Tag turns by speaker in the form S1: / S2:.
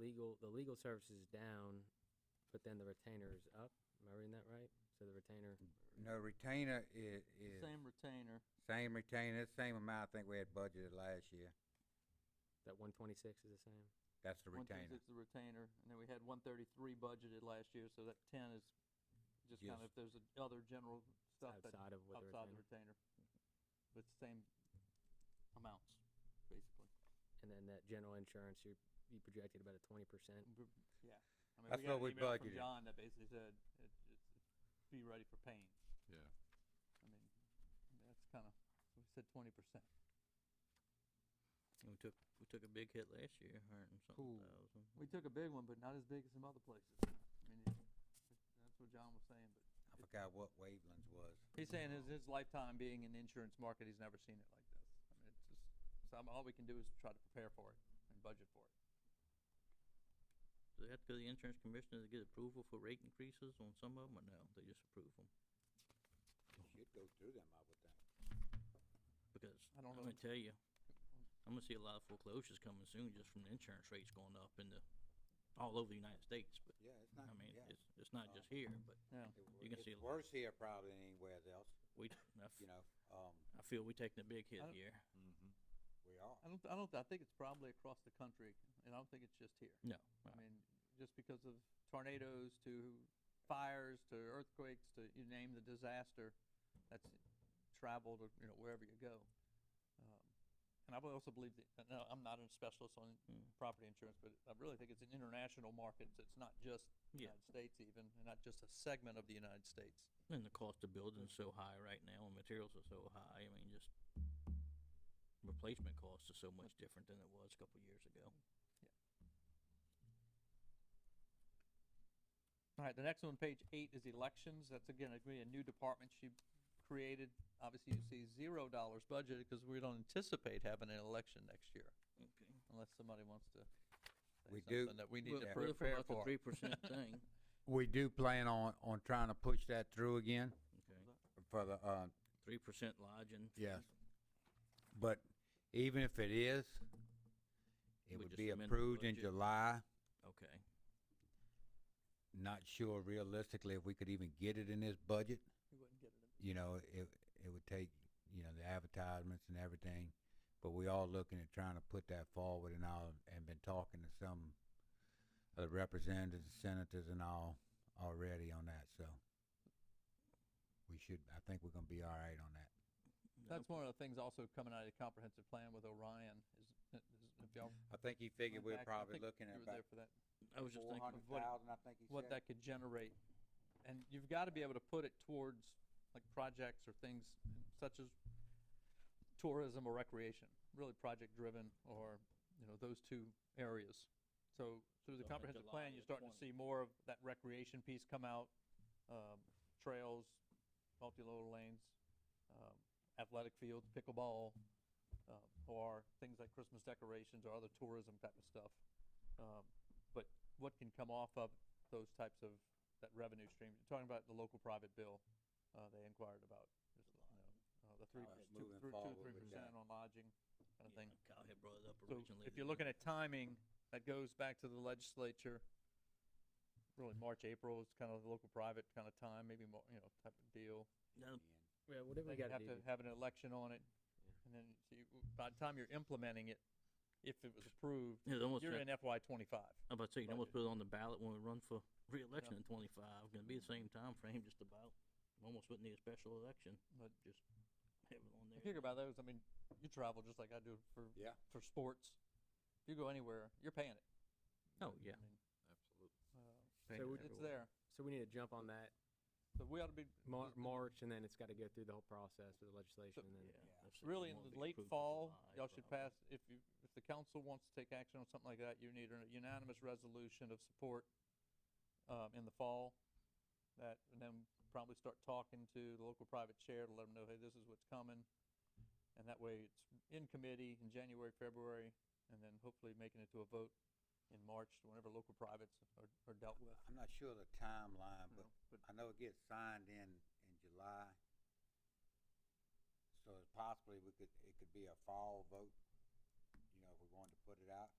S1: legal, the legal service is down, but then the retainer is up. Am I reading that right? So the retainer,
S2: No, retainer is, is
S3: Same retainer,
S2: same retainer, same amount I think we had budgeted last year.
S1: that one twenty-six is the same?
S2: That's the
S3: one
S2: retainer.
S3: thirty-six the retainer, and then we had one thirty-three budgeted last year, so that ten is just
S2: Yes.
S3: kind of, if there's a- other general
S1: It's
S3: stuff that's
S1: Outside of what the
S3: outside the
S1: retainer,
S3: retainer. But it's the same amounts, basically.
S1: and then that general insurance, you, you projected about a twenty percent.
S3: B- Yeah. I mean,
S2: That's
S3: got
S2: what we
S3: an email from
S2: budgeted.
S3: John that basically said, it, it's, it's be ready for pain.
S4: Yeah.
S3: I mean, that's kinda, we said twenty percent.
S5: We took, we took a big hit last year, hundred and
S3: Cool.
S5: something thousand.
S3: We took a big one, but not as big as some other places. I mean, it- that's what John was saying, but
S2: I forgot what Waveland's was.
S3: He's saying his, his lifetime being in the insurance market, he's never seen it like this. I mean, it's just, so I'm, all we can do is try to prepare for it and budget for it.
S5: Do they have to go to the insurance commissioner to get approval for rate increases on some of them, or no, they just approve them?
S2: Should go through them, I would think.
S5: Because
S3: I
S5: I'm
S3: don't know.
S5: gonna tell you, I'm gonna see a lot of foreclosures coming soon just from the insurance rates going up in the, all over the United States, but,
S2: Yeah, it's
S5: I mean,
S2: yeah.
S5: it's, it's not
S2: Uh,
S5: just here,
S3: Um,
S5: but
S2: It w-
S5: you can see a
S2: It's
S5: lot.
S2: worse here probably than anywhere else,
S5: we, I f-
S2: you know, um,
S5: I feel we taking a big hit
S3: I don't-
S5: here.
S4: Mm-hmm.
S2: we are.
S3: I don't, I don't, I think it's probably across the country, and I don't think it's just here.
S5: No,
S3: I mean, just because of tornadoes to fires to earthquakes to, you name the disaster, that's traveled, or, you know, wherever you go. Um, And I also believe that, no, I'm not a specialist on
S5: Mm.
S3: property insurance, but I really think it's an international market, so it's not just the
S5: Yeah.
S3: United States even, and not just a segment of the United States.
S5: and the cost of building is so high right now, and materials are so high, I mean, just replacement costs are so much different than it was a couple of years ago.
S3: All right, the next one, page eight, is elections. That's again, it's gonna be a new department she created. Obviously, you see zero dollars budgeted because we don't anticipate having an election next year,
S5: Okay.
S3: unless somebody wants to say
S2: We do-
S3: something that we need to
S2: Well,
S3: prepare for.
S5: Three percent thing,
S2: We do plan on, on trying to push that through again
S5: okay,
S2: for the, uh,
S5: three percent lodging.
S2: Yes. But even if it is,
S5: We
S2: it would
S5: just
S2: be
S5: amend the
S2: approved in
S5: budget.
S2: July.
S5: Okay,
S2: Not sure realistically if we could even get it in this budget.
S3: You wouldn't get it in-
S2: You know, it, it would take, you know, the advertisements and everything. But we are looking at trying to put that forward and all, and been talking to some of the representatives, senators and all already on that, so. We should, I think we're gonna be all right on that.
S3: That's one of the things also coming out of the comprehensive plan with Orion is, is if y'all.
S2: I think he figured we're
S3: went back, I
S2: probably
S3: think
S2: looking at
S3: you were
S2: about
S3: there for that.
S5: I was just
S2: four
S5: thinking,
S2: hundred
S3: what-
S2: thousand, I think he said.
S3: what that could generate. And you've got to be able to put it towards like projects or things such as tourism or recreation, really project driven or, you know, those two areas. So through the
S5: So in
S3: comprehensive plan,
S5: July of
S3: you're starting to
S5: 20.
S3: see more of that recreation piece come out, um, trails, multi-load lanes, um, athletic fields, pickleball, uh, or things like Christmas decorations or other tourism type of stuff. Um, But what can come off of those types of, that revenue stream? You're talking about the local private bill uh, they inquired about, just, you know, uh, the three,
S2: How it's
S3: two,
S2: moving
S3: three-
S2: forward
S3: two, three
S2: with
S3: percent
S2: that.
S3: on lodging kind of
S5: yeah,
S3: thing.
S5: Kyle had brought it up
S3: So
S5: originally.
S3: if
S5: that
S3: you're
S5: we-
S3: looking at timing, that goes back to the legislature, really March, April is kind of the local private kind of time, maybe more, you know, type of deal.
S5: That'll-
S1: Yeah, whatever
S3: They
S1: we gotta
S3: have
S1: do.
S3: to have an election on it, and then so you, by the time you're implementing it, if it was approved,
S5: It almost,
S3: you're
S5: got-
S3: in FY twenty-five.
S5: I'm about to say, you can almost
S3: budget.
S5: put it on the ballot when we run for reelection in twenty-five, gonna be the same time frame, just about. Almost wouldn't need a special election,
S3: But-
S5: just have it on
S3: You
S5: there.
S3: figure about those, I mean, you travel just like I do for,
S2: Yeah.
S3: for sports. If you go anywhere, you're paying it.
S5: Oh, yeah.
S3: I mean,
S4: Absolutely.
S3: uh,
S1: So we-
S3: It's there,
S1: So we need to jump on that
S3: so we ought to be
S1: Mar-
S3: Just the-
S1: March, and then it's gotta go through the whole process with the legislation, and then,
S5: Yeah, that's it, we
S3: really in
S5: won't be
S3: the late
S5: approved till
S3: fall,
S5: July,
S3: y'all should
S5: probably.
S3: pass, if you, if the council wants to take action on something like that, you need a unanimous resolution of support um, in the fall. That, and then probably start talking to the local private chair to let them know, hey, this is what's coming. And that way it's in committee in January, February, and then hopefully making it to a vote in March, whenever local privates are, are dealt with.
S2: I'm not sure of the timeline,
S3: you
S2: but
S3: know, But
S2: I know it gets signed in, in July. So it's possibly we could, it could be a fall vote, you know, if we wanted to put it out.